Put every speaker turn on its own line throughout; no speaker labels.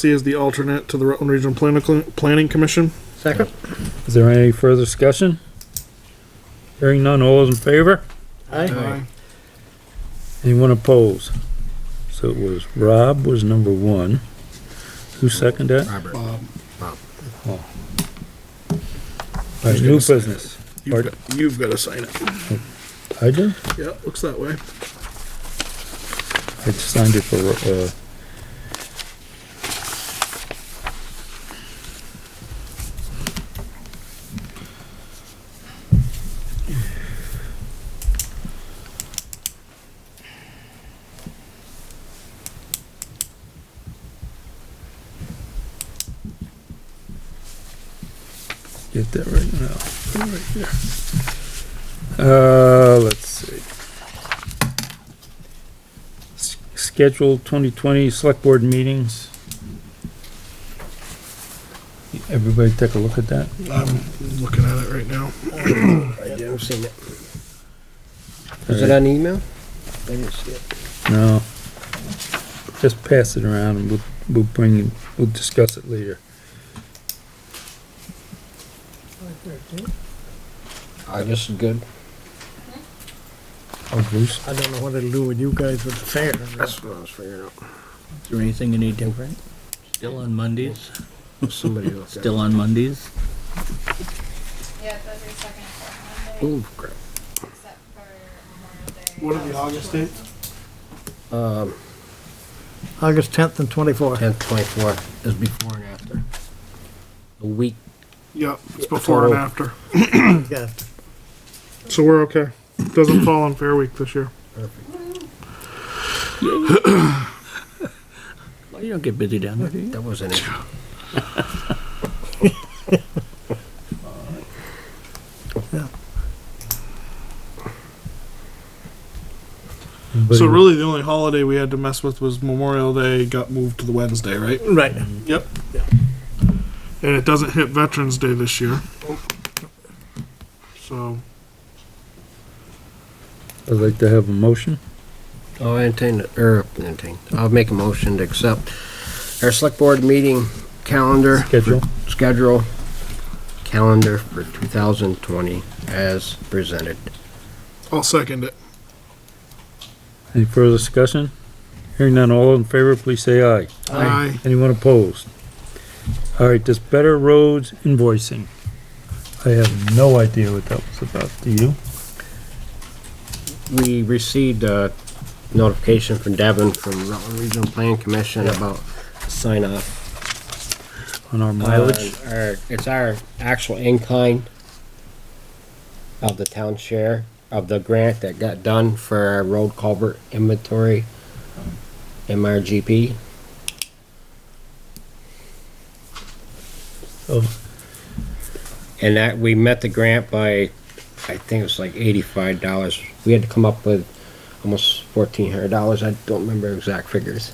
C is the alternate to the Rutland Regional Planning, Cl- Planning Commission.
Second?
Is there any further discussion? Hearing none, all those in favor?
Aye.
Anyone opposed? So it was, Rob was number one. Who seconded that?
Robert.
All right, New business.
You've got, you've got to sign it.
I do?
Yeah, looks that way.
I just signed it for, uh, get that right now. Put it right there. Uh, let's see. S- schedule 2020 select board meetings. Everybody take a look at that.
I'm looking at it right now.
I've seen it. Is it on email? I didn't see it.
No. Just pass it around and we'll, we'll bring, we'll discuss it later.
August is good.
Oh, Bruce,
I don't know what it'll do with you guys with the fair.
That's what I was figuring out.
Is there anything any different? Still on Mondays?
Somebody else.
Still on Mondays?
Yeah, those are second and fourth Monday,
Oh, crap.
except for Memorial Day.
What are the August dates?
Um,
August tenth and twenty-fourth.
tenth, twenty-fourth is before and after. A week.
Yep, it's before and
Oh.
after.
Yeah,
So we're okay. Doesn't fall on Fair Week this year.
Well, you don't get busy down there, do you?
That wasn't it.
So
anybody-
really, the only holiday we had to mess with was Memorial Day. Got moved to the Wednesday, right?
right.
Yep. And it doesn't hit Veterans Day this year. So
I'd like to have a motion.
Oh, I entertain, er, entertain. I'll make a motion to accept our select board meeting calendar.
Schedule.
Schedule, calendar for two thousand twenty as presented.
I'll second it.
Any further discussion? Hearing none, all in favor, please say aye.
Aye.
Anyone opposed? All right, this Better Roads invoicing. I have no idea what that was about. Do you?
we received a notification from Devin from Rutland Regional Plan Commission about sign off.
On our mileage?
Our, Uh, it's our actual incline of the town share of the grant that got done for our road culvert inventory, MRGP.
Oh.
And that, we met the grant by, I think it was like eighty-five dollars. We had to come up with almost fourteen hundred dollars. I don't remember exact figures.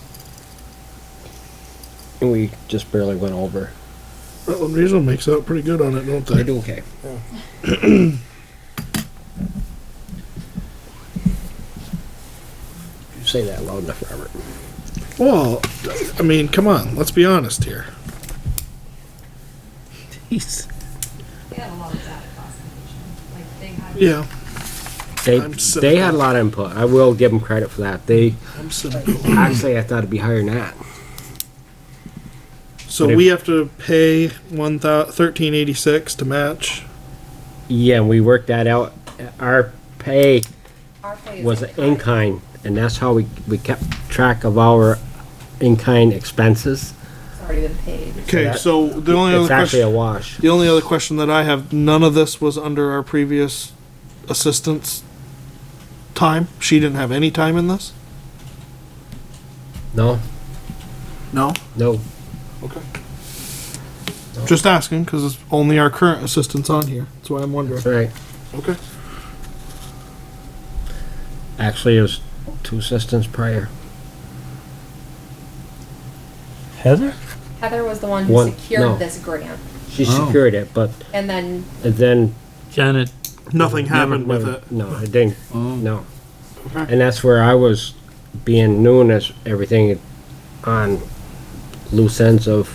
And we just barely went over.
Rutland Regional makes out pretty good on it, don't
They
they?
do okay. You Say that loud enough, Robert.
Well, I mean, come on. Let's be honest here.
Jeez.
We had a lot of data classification, like they had.
Yeah,
They,
I'm so-
they had a lot of input. I will give them credit for that. They,
I'm cynical.
actually, I thought it'd be higher than that.
So we have to pay one thou- thirteen eighty six to match.
Yeah, and we worked that out. Our pay
Our pay is
was in kind, and that's how we, we kept track of our in kind expenses.
It's already been paid.
Okay, so the only other
It's actually a
question,
wash.
the only other question that I have, none of this was under our previous assistant's time. She didn't have any time in this.
No,
No.
no.
Okay. Just asking because it's only our current assistant's on here. That's why I'm wondering.
Right.
Okay.
Actually, it was two assistants prior.
Heather?
Heather was the one
One-
who
no.
secured this grant,
She
Oh.
secured it, but
and then
and then
Janet
Nothing happened
Never-
with
never-
it.
No, it didn't. No.
Okay.
And that's where I was being known as everything on loose ends of